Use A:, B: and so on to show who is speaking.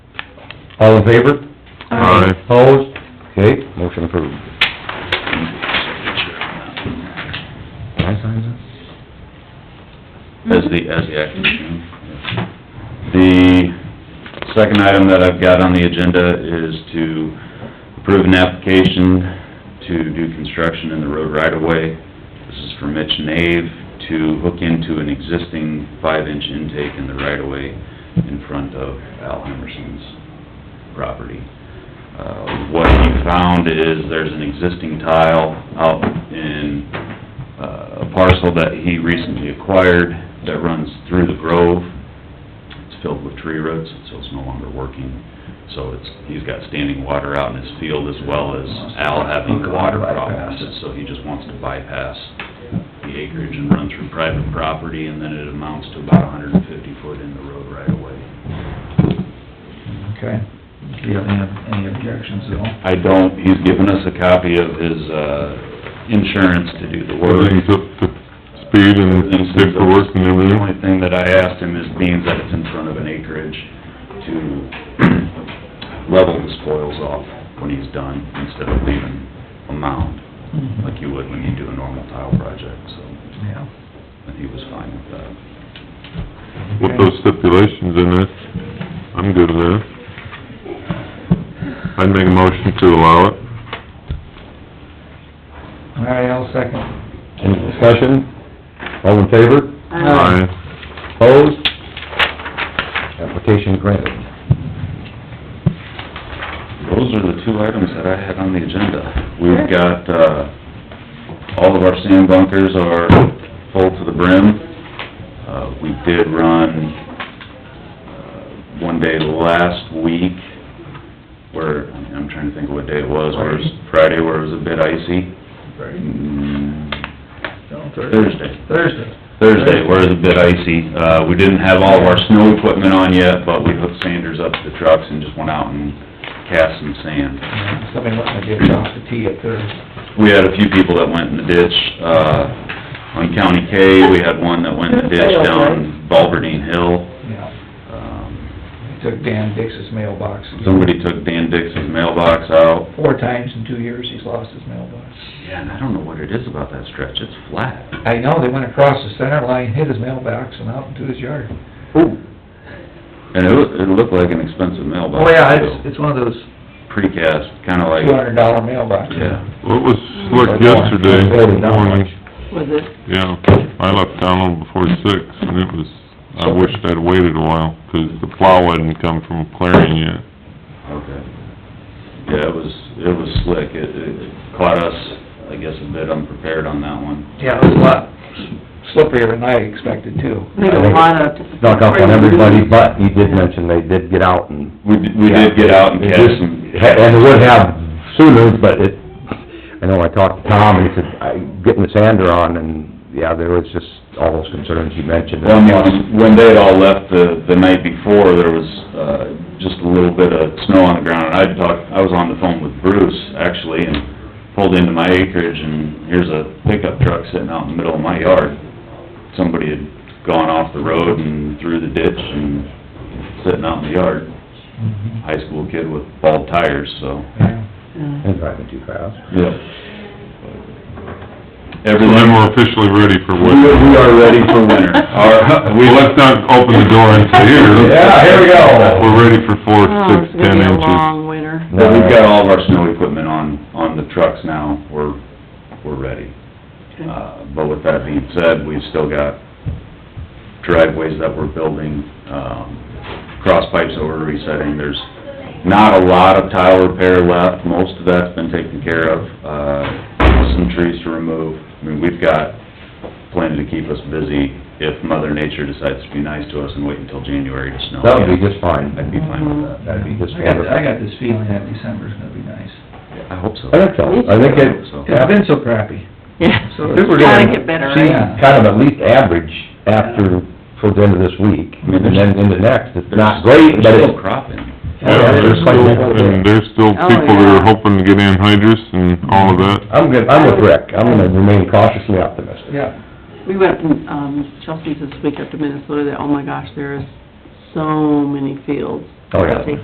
A: All in favor?
B: Aye.
A: Opposed? Okay, motion approved. Can I sign that?
C: As the, as the action item. The second item that I've got on the agenda is to approve an application to do construction in the road right-of-way. This is for Mitch Nave to hook into an existing five-inch intake in the right-of-way in front of Al Emerson's property. Uh, what he found is there's an existing tile out in uh, a parcel that he recently acquired that runs through the grove. It's filled with tree roots, so it's no longer working. So it's, he's got standing water out in his field as well as Al having water problems. So he just wants to bypass the acreage and run through private property, and then it amounts to about hundred and fifty foot in the road right away.
D: Okay. Do you have any, any objections at all?
C: I don't, he's given us a copy of his, uh, insurance to do the work.
B: Everything's up to speed and paperwork and
C: The
B: everything.
C: only thing that I asked him is being that it's in front of an acreage to level the spoils off when he's done instead of leaving a mound like you would when you do a normal tile project, so,
D: Yeah.
C: and he was fine with that.
B: With those stipulations in it, I'm good with that. I'd make a motion to allow it.
D: All right, I'll second.
A: Any discussion? All in favor?
B: Aye.
A: Opposed? Application granted.
C: Those are the two items that I had on the agenda. We've got, uh, all of our sand bunkers are full to the brim. Uh, we did run, uh, one day last week where, I'm trying to think of what day it was, where it was Friday, where it was a bit icy. Mm,
D: No,
C: Thursday.
D: Thursday.
C: Thursday, where it's a bit icy. Uh, we didn't have all of our snow equipment on yet, but we hooked sanders up to the trucks and just went out and cast some sand.
D: Yeah, Somebody must to get off the tee at Thursday.
C: We had a few people that went in the ditch, uh, on County K, we had one that went in the ditch down Balverdeen Hill.
D: Yeah.
C: Um,
D: Took Dan Dix's mailbox.
C: Somebody took Dan Dix's mailbox out.
D: Four times in two years, he's lost his mailbox.
C: Yeah, and I don't know what it is about that stretch, it's flat.
D: I know, they went across the center line, hit his mailbox and out into his yard.
C: And it looked, it looked like an expensive mailbox.
D: Oh, yeah,
C: too.
D: it's, it's one of those
C: Precast, kinda like,
D: two hundred dollar mailboxes.
C: yeah.
B: What was slick yesterday morning?
E: Was it,
B: Yeah, I left town a little before six and it was, I wished I'd waited a while, 'cause the plow hadn't come from clearing yet.
C: Okay. Yeah, it was, it was slick, it, it caught us, I guess, a bit unprepared on that one.
D: Yeah, it was a lot slipperier than I expected too.
E: I think a lot of...
A: Snuck up on everybody, but he did mention they did get out and...
C: We, d- we did get out and
A: It
C: catch
A: just-
C: some.
A: And it would have sooner, but it, I know I talked to Tom, and he said, I, getting the sander on, and, yeah, there was just all those concerns you mentioned.
C: Well, when, when they had all left the, the night before, there was, uh, just a little bit of snow on the ground, and I'd talked, I was on the phone with Bruce, actually, and pulled into my acreage, and here's a pickup truck sitting out in the middle of my yard. Somebody had gone off the road and through the ditch and sitting out in the yard,
D: Mhm.
C: high school kid with bald tires, so.
D: Yeah.
A: And driving too fast.
C: Yep.
B: So then
C: Everything,
B: we're officially ready for
C: we
B: winter.
C: we are ready for winter. Our, we
B: Well, let's not open the door and say, here.
A: Yeah, here we go.
B: We're ready for four,
E: Oh,
B: six,
E: it's
B: ten
E: gonna be a
B: inches.
E: long winter.
C: But we've
A: Uh,
C: got all of our snow equipment on, on the trucks now, we're, we're ready. Uh, but with that being said, we've still got driveways that we're building, um, cross pipes that we're resetting, there's not a lot of tile repair left, most of that's been taken care of, uh, some trees to remove. I mean, we've got plenty to keep us busy if Mother Nature decides to be nice to us and wait until January to snow.
A: That would be just fine.
C: I'd be fine with that.
A: That'd be just
D: I got, I
A: wonderful.
D: got this feeling that December's gonna be nice.
C: I hope so.
A: I think so, I think it,
C: So-
D: It's been so crappy.
E: Yeah,
D: So
A: I think we're
E: gotta
A: gonna
E: get better,
A: see
E: right?
D: Yeah.
A: kind of at least average after, towards the end of this week,
C: I mean, there's-
A: and then into next, it's
C: There's-
A: not great, but
C: There's
A: it's...
C: still cropping.
B: Yeah, there's still, and there's still
E: Oh,
B: people that are
E: yeah.
B: hoping to get anhydrous and all of that.
A: I'm good, I'm with Rick, I'm gonna remain cautiously optimistic.
D: Yeah,
E: We went, um, Chelsea's this week up to Minnesota, that, oh my gosh, there is so many fields.
A: Oh, yeah.